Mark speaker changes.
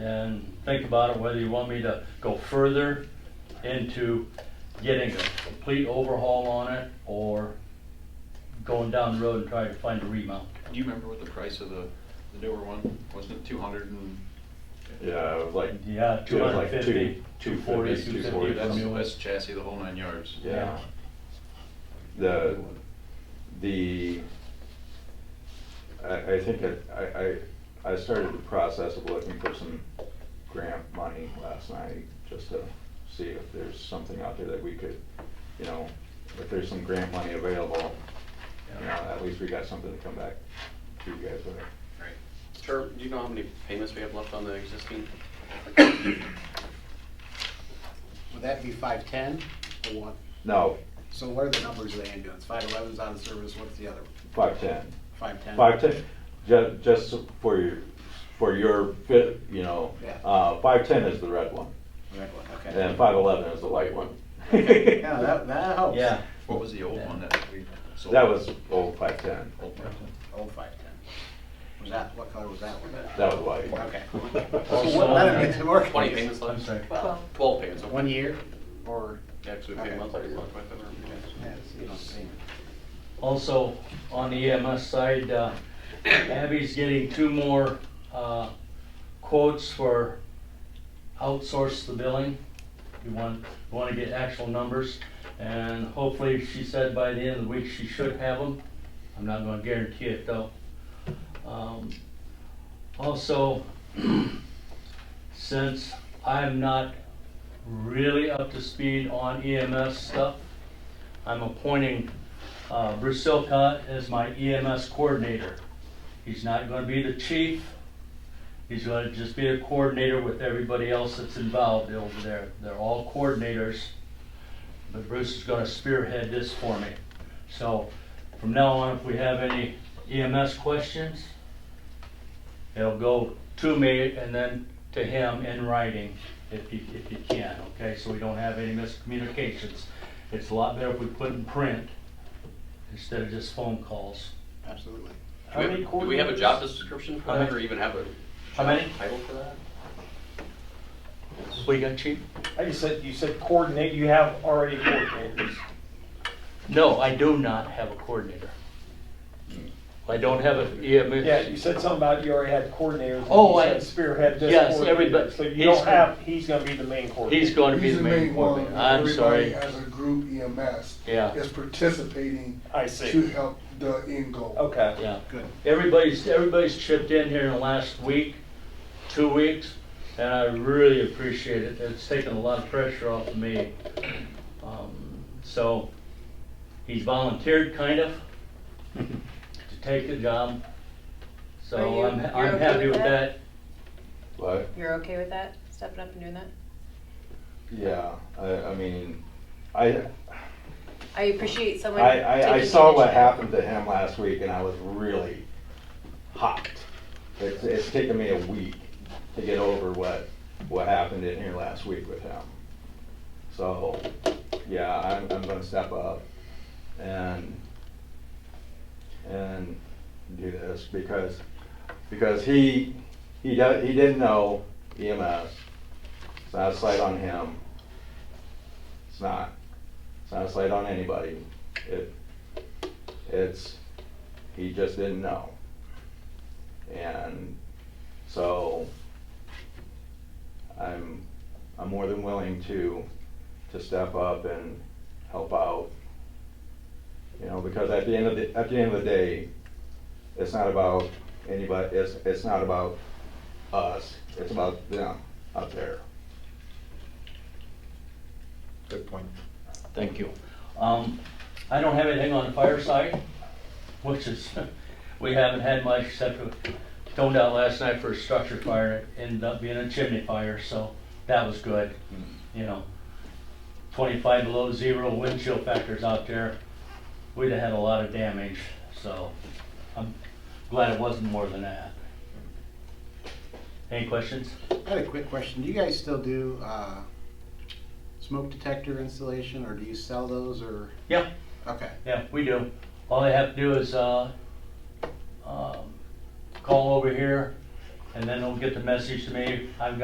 Speaker 1: and think about it, whether you want me to go further into getting a complete overhaul on it or going down the road and trying to find a remount.
Speaker 2: Do you remember what the price of the, the newer one, wasn't it two hundred and?
Speaker 3: Yeah, it was like.
Speaker 1: Yeah,
Speaker 3: it was like
Speaker 1: 250,
Speaker 3: two-
Speaker 1: 240,
Speaker 3: 250,
Speaker 1: 240.
Speaker 2: That's,
Speaker 3: 240.
Speaker 2: that's chassis, the whole nine yards.
Speaker 3: Yeah. The, the, I, I think I- I, I, I started the process of looking for some grant money last night, just to see if there's something out there that we could, you know, if there's some grant money available, you know, at least we got something to come back to you guys with.
Speaker 4: Sure, do you know how many payments we have left on the existing?
Speaker 5: Would that be five ten or what?
Speaker 3: No,
Speaker 5: So what are the numbers of the ambulance? Five eleven's out of service, what's the other?
Speaker 3: five-ten.
Speaker 5: Five ten?
Speaker 3: Five ten, ju- just for your, for your fit, you know,
Speaker 5: Yeah.
Speaker 3: uh, five ten is the red one,
Speaker 5: Red one,
Speaker 3: and
Speaker 5: okay.
Speaker 3: then five eleven is the light one.
Speaker 5: Yeah, that, that helps.
Speaker 1: Yeah,
Speaker 2: What was the old one that we sold?
Speaker 3: That was old five ten,
Speaker 2: Old one.
Speaker 5: Old five ten. Was that, what color was that one?
Speaker 3: that was white.
Speaker 5: Okay.
Speaker 1: Also-
Speaker 5: Well, that makes it more
Speaker 4: Twenty
Speaker 5: confusing.
Speaker 4: payments left?
Speaker 1: uh, I'm sorry.
Speaker 4: Twelve. Twelve payments, okay.
Speaker 5: One year or?
Speaker 4: Yeah, 'cause we pay
Speaker 5: Okay.
Speaker 4: monthly. month by month.
Speaker 5: yeah, it's, you know, same.
Speaker 1: Also, on the EMS side, uh, Abby's getting two more uh, quotes for outsource the billing. You want, you want to get actual numbers, and hopefully, she said by the end of the week, she should have them. I'm not gonna guarantee it, though. Um, Also, since I'm not really up to speed on EMS stuff, I'm appointing uh, Bruce Silcott is my EMS coordinator. He's not gonna be the chief. He's gonna just be a coordinator with everybody else that's involved over there. They're all coordinators. But Bruce is gonna spearhead this for me. So from now on, if we have any EMS questions, it'll go to me and then to him in writing if you, if you can, okay? So we don't have any miscommunications. It's a lot better if we put in print instead of just phone calls.
Speaker 5: Absolutely.
Speaker 4: Do we have a- Do we have a job description for
Speaker 1: How
Speaker 4: that,
Speaker 1: many-
Speaker 4: or even have a
Speaker 1: How many?
Speaker 4: title for that?
Speaker 1: What you got, chief?
Speaker 6: I just said, you said coordinate, you have already coordinators.
Speaker 1: No, I do not have a coordinator. I don't have an EMS.
Speaker 6: Yeah, you said something about you already had coordinators. and
Speaker 1: Oh,
Speaker 6: you
Speaker 1: I-
Speaker 6: said Spearhead this
Speaker 1: yes,
Speaker 6: coordinator.
Speaker 1: everybody-
Speaker 6: So you
Speaker 1: he's
Speaker 6: don't
Speaker 1: gonna-
Speaker 6: have, he's gonna be the main coordinator.
Speaker 1: He's going to be
Speaker 7: He's
Speaker 1: the main
Speaker 7: one.
Speaker 1: coordinator. I'm sorry.
Speaker 7: Everybody as a group E EMS.
Speaker 1: Yeah.
Speaker 7: Is participating.
Speaker 6: I see.
Speaker 7: To help the end goal.
Speaker 6: Okay.
Speaker 1: Yeah.
Speaker 5: Good.
Speaker 1: Everybody's, everybody's chipped in here in the last week, two weeks, and I really appreciate it. It's taken a lot of pressure off of me. Um, So he's volunteered, kind of, to take the job.
Speaker 8: Are
Speaker 1: So
Speaker 8: you-
Speaker 1: I'm,
Speaker 8: you're
Speaker 1: I'm
Speaker 8: okay
Speaker 1: happy
Speaker 8: with
Speaker 1: with that.
Speaker 8: that?
Speaker 3: But,
Speaker 8: You're okay with that, stepping up and doing that?
Speaker 3: yeah, I, I mean, I,
Speaker 8: I appreciate
Speaker 3: I,
Speaker 8: someone.
Speaker 3: I, I
Speaker 8: taking
Speaker 3: saw what
Speaker 8: initiative.
Speaker 3: happened to him last week and I was really hot. It's, it's taken me a week to get over what, what happened in here last week with him. So, yeah, I'm, I'm gonna step up and, and do this because, because he, he does, he didn't know EMS. It's not a slight on him. It's not. It's not a slight on anybody. It, it's, he just didn't know. And so I'm, I'm more than willing to, to step up and help out. You know, because at the end of the, at the end of the day, it's not about anybody, it's, it's not about us, it's about them up there.
Speaker 7: Good point.
Speaker 1: Thank you. Um, I don't have anything on the fire side, which is, we haven't had much except for toned out last night for a structure fire. and It ended up being a chimney fire, so that was good, you know. Twenty-five below zero wind chill factors out there. We'd have had a lot of damage, so I'm glad it wasn't more than that. Any questions?
Speaker 5: I had a quick question. Do you guys still do, uh, smoke detector installation or do you sell those or?
Speaker 1: Yeah.
Speaker 5: Okay.
Speaker 1: Yeah, we do. All they have to do is, uh, um, call over here, and then they'll get the message to me. I've got